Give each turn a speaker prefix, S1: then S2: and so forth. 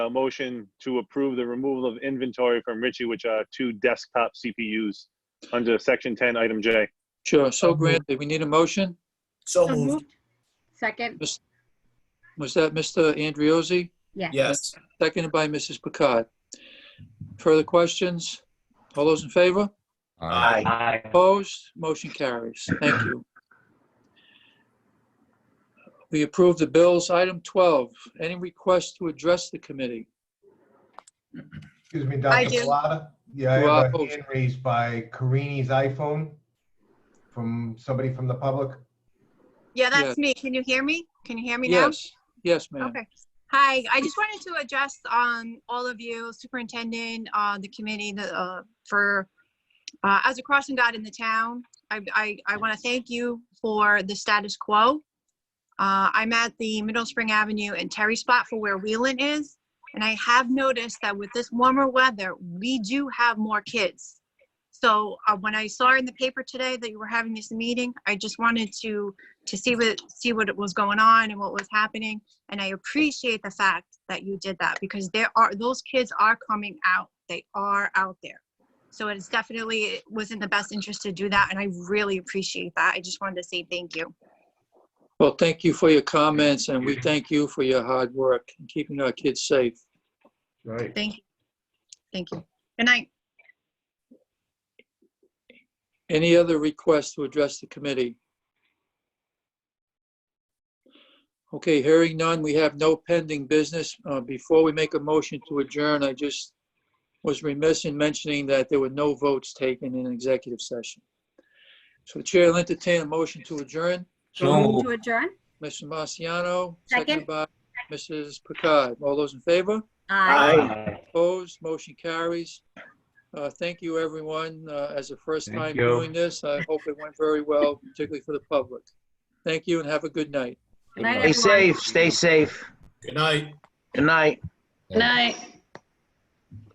S1: a motion to approve the removal of inventory from Richie, which are two desktop CPUs under section ten, item J.
S2: Sure, so granted, we need a motion.
S3: So
S4: So
S3: moved,
S4: moved. Second,
S2: Was that Mr. Andriozzi?
S4: yes.
S3: yes.
S2: Seconded by Mrs. Picard. Further questions? All those in favor?
S3: Aye.
S5: Aye.
S2: Opposed? Motion carries. Thank you. We approve the bills. Item 12, any requests to address the committee?
S6: Excuse me,
S7: I
S6: Dr.
S7: do.
S6: Pilata? Yeah, I have
S2: Pilata.
S6: a hand raised by Karini's iPhone from somebody from the public.
S7: Yeah,
S2: Yes.
S7: that's me. Can you hear me? Can you hear me now?
S2: Yes, yes, ma'am.
S7: Okay. Hi, I just wanted to address um all of you, superintendent, uh, the committee, the, uh, for, uh, as a crossing guard in the town. I, I, I want to thank you for the status quo. Uh, I'm at the Middle Spring Avenue and Terry spot for where Wheelan is. And I have noticed that with this warmer weather, we do have more kids. So, uh, when I saw in the paper today that you were having this meeting, I just wanted to, to see what, see what was going on and what was happening. And I appreciate the fact that you did that because there are, those kids are coming out. They are out there. So it is definitely, it was in the best interest to do that. And I really appreciate that. I just wanted to say thank you.
S2: Well, thank you for your comments, and we thank you for your hard work in keeping our kids safe.
S6: Right.
S7: Thank you. Thank you. Good night.
S2: Any other requests to address the committee? Okay, hearing none, we have no pending business. Uh, Before we make a motion to adjourn, I just was remiss in mentioning that there were no votes taken in executive session. So the chair will entertain a motion to adjourn.
S3: So
S4: To
S3: moved,
S4: adjourn?
S2: Mr. Marciano,
S4: Second.
S2: seconded by Mrs. Picard. All those in favor?
S4: Aye.
S5: Aye.
S2: Opposed, motion carries. Uh, Thank you, everyone. Uh, As a first
S5: Thank
S2: time
S5: you.
S2: doing this, I hope it went very well, particularly for the public. Thank you and have a good night.
S4: Good night,
S5: Stay
S4: everyone.
S5: safe, stay safe.
S3: good night.
S5: Good night.
S4: Good night.